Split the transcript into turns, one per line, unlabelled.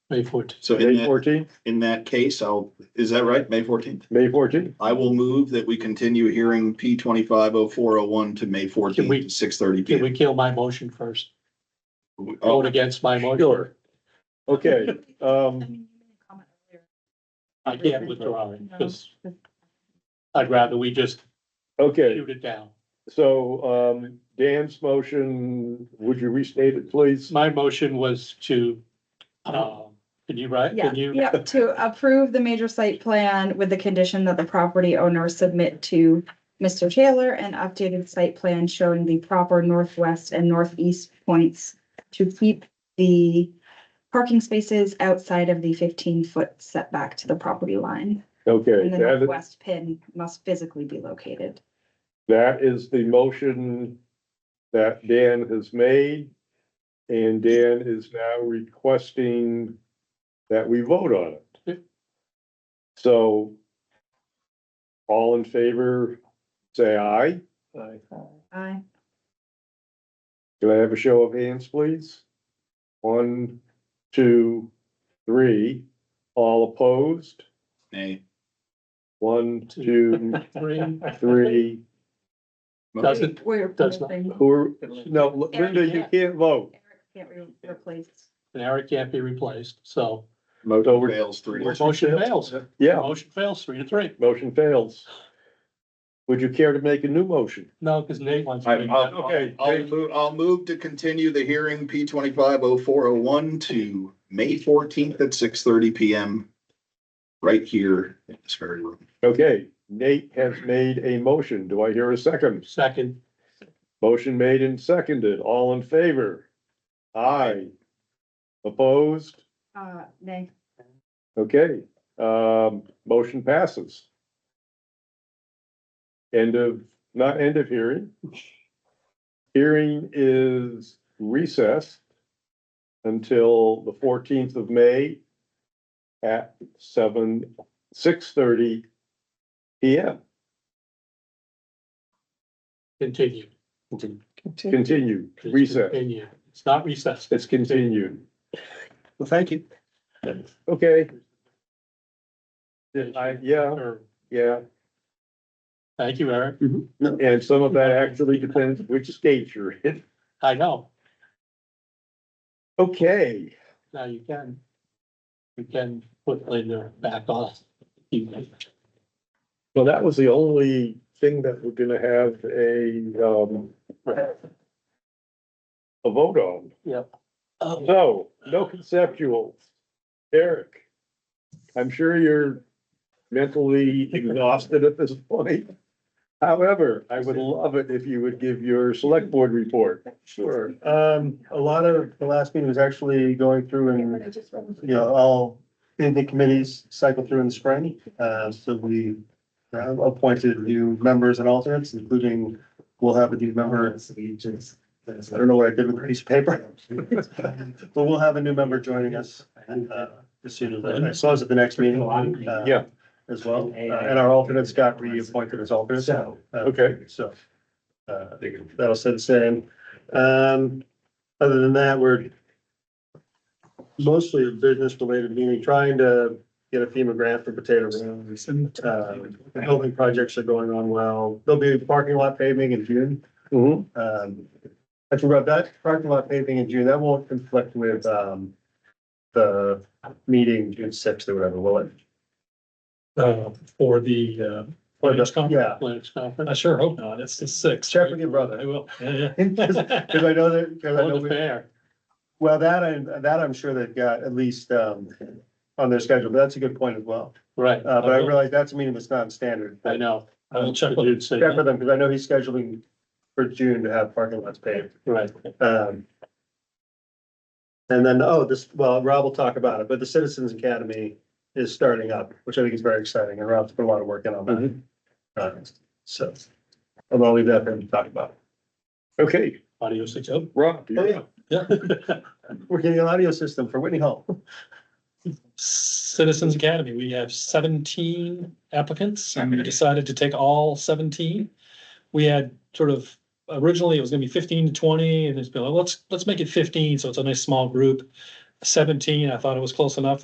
May fourteenth.
So in
May
that,
fourteenth,
in that case, I'll, is that right? May fourteenth?
May fourteenth.
I will move that we continue hearing P twenty-five oh four oh one to May
we-
fourteenth, six thirty
Can
P
we kill my motion first?
M. Oh,
Vote against my motion.
Sure. Okay,
I
um,
mean, you made a comment earlier.
I can't withdraw it because I'd rather we just
okay,
shoot it down.
so, um, Dan's motion, would you restate it, please?
My motion was to, uh, can you write?
Yeah,
Can you?
yeah, to approve the major site plan with the condition that the property owner submit to Mr. Taylor an updated site plan showing the proper northwest and northeast points to keep the parking spaces outside of the fifteen-foot setback to the property line.
Okay,
And the
that,
northwest pin must physically be located.
that is the motion that Dan has made. And Dan is now requesting that we vote on it. So all in favor, say aye.
Aye.
Do I have a show of hands, please? One, two, three, all opposed?
Nay.
One, two,
Three,
three,
Doesn't-
We're
Does not-
replacing-
who are, no, Linda, you can't vote.
Eric can't be replaced.
and Eric can't be replaced, so
Motion
Over fails three. to-
motion fails.
Yeah,
Motion fails three to three.
motion fails. Would you care to make a new motion?
No, because Nate wants. to
I-
be-
I'll-
Okay.
I'll move, I'll move to continue the hearing P twenty-five oh four oh one to May fourteenth at six thirty P M. Right here in this very room.
Okay, Nate has made a motion. Do I hear a second?
Second,
Motion made and seconded. All in favor? Aye. Opposed?
Uh, nay.
Okay, um, motion passes. End of, not end of hearing. Hearing is recessed until the fourteenth of May at seven, six thirty P M.
continue.
Continued,
It's
recess.
Continue. It's not recessed.
It's continued.
Well, thank you.
Okay, I- yeah.
Or-
yeah,
Thank you, Eric.
No,
and some of that actually depends which state you're in.
I know.
Okay,
Now you can. You can put Linda back on. You-
well, that was the only thing that we're gonna have a, um, a vote on.
Oh,
No, no conceptuals. Eric, I'm sure you're mentally exhausted at this point. However, I would love it if you would give your select board report.
Sure. Um, a lot of the last meeting was actually going through and, you know, all, in the committees cycle through in the spring. Uh, so we uh, appointed new members and alternates, including, we'll have a new member. I don't know what I did with a piece of paper. But we'll have a new member joining us, uh, as soon as, I saw us at the next meeting. uh,
Yeah.
As well, Uh, and our alternates got reappointed as alternates. So.
Okay.
Um, So. Uh, that'll set the same. Um, other than that, we're mostly a business related meeting, trying to get a FEMA grant for potato rooms. Uh, the building projects are going on well. There'll be parking lot paving in June.
Mhm.
Um, actually, Rob, that parking lot paving in June, that won't conflict with, um, the meeting June sixth or whatever, will it?
uh, for the, uh,
Or
Linux
the-
conference.
Yeah,
Linux
I
conference.
sure hope not. It's the sixth.
Check with
right?
your brother.
I will. Yeah,
cause
yeah.
'cause I know that, cause I
Or
know.
the
we-
fair.
Well, that I, that I'm sure they've got at least um on their schedule, but that's a good point as well.
Right.
Uh, but I realize that's a meeting that's non-standard.
I know.
I will check
The
with you.
dude said
Check
that.
with them, because I know he's scheduling for June to have parking lots paved.
Right.
Um. And then, oh, this, well, Rob will talk about it, but the Citizens Academy is starting up, which I think is very exciting, and Rob's put a lot of work in on
Mm-hmm.
that. Uh, So, I'll leave that for him to talk about.
Okay,
Audio six oh.
Rob.
Oh,
you're-
yeah,
Yeah.
we're getting an audio system for Whitney Hall.
Citizens Academy, we have seventeen applicants and we decided to take all seventeen. We had sort of, originally it was gonna be fifteen to twenty and it's been like, let's, let's make it fifteen, so it's a nice small group.
seventeen. I thought it was close enough.